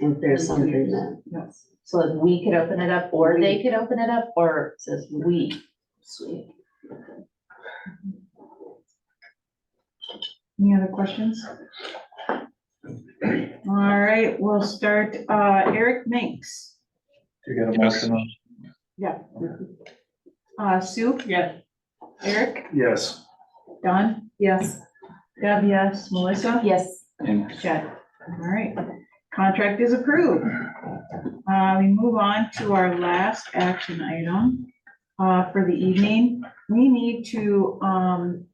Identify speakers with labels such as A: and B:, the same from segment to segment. A: if there's
B: Something
A: something
B: that-
A: that,
B: Yes.
A: so if we could open it up, or they could open it up, or it says we. Sweet.
B: Any other questions? All right, we'll start, uh, Eric Minks.
C: You got a
D: Yes.
C: motion on?
B: Yeah. Uh, Sue?
E: Yeah.
B: Eric?
C: Yes.
B: Don? Yes. Deb, yes. Melissa?
A: Yes,
C: And
B: Chad. All right, contract is approved. Uh, we move on to our last action item, uh, for the evening. We need to, um,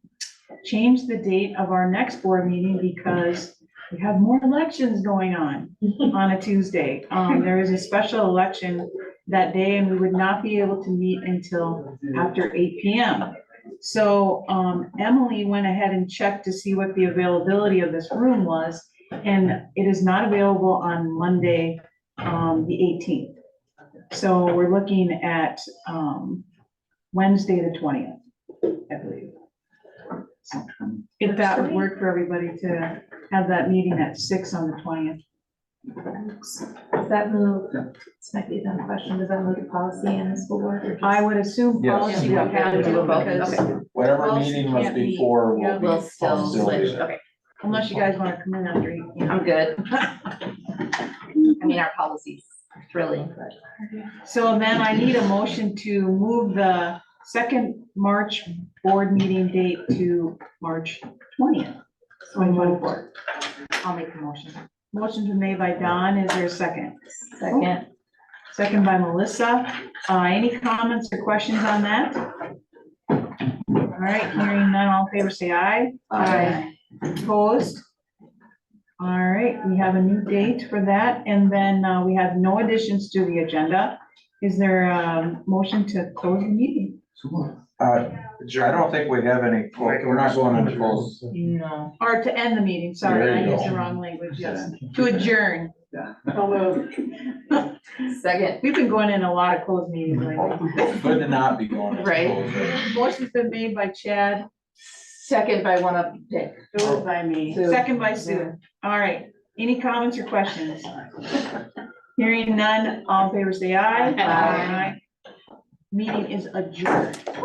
B: change the date of our next board meeting because we have more elections going on, on a Tuesday. Um, there is a special election that day and we would not be able to meet until after eight P M. So, um, Emily went ahead and checked to see what the availability of this room was. And it is not available on Monday, um, the eighteenth. So we're looking at, um, Wednesday, the twentieth, I believe. So, um, If that would work for everybody to have that meeting at six on the twentieth.
F: Does that move, this might be a dumb question, does that move to policy and the school board? or just-
B: I would assume
C: Yes.
B: policy would have to do both, okay,
C: whatever
F: Well,
C: meeting
F: she
C: was
F: can't be-
C: before
B: yeah,
C: will be.
A: we'll still
C: facilitated.
A: switch, okay,
B: unless you guys want to come in after. eight, you know.
A: I'm good. I mean, our policy's thrilling, but.
B: So then I need a motion to move the second March board meeting date to March twentieth, twenty twenty-four.
A: I'll make the motion.
B: Motion's been made by Don, is there a second?
A: Second.
B: Second by Melissa, uh, any comments or questions on that? All right, hearing none, all in favor, say aye.
A: Aye.
B: Opposed? All right, we have a new date for that, and then, uh, we have no additions to the agenda. Is there a motion to close the meeting?
C: Uh, I don't think we have any, we're not going into close.
A: No.
B: Or to end the meeting, sorry,
C: There
B: I
C: you
B: used
C: go.
B: the wrong language, yes. To adjourn.
A: Second.
B: We've been going in a lot of closed meetings lately.
C: Good to not be going into
A: Right.
C: closed.
B: Motion's been made by Chad,
A: Second by one of Dick.
E: by me.
A: Sue.
B: second by Sue. All right, any comments or questions? Hearing none, all in favor say aye.
A: Aye.
B: Aye. Meeting is adjourned.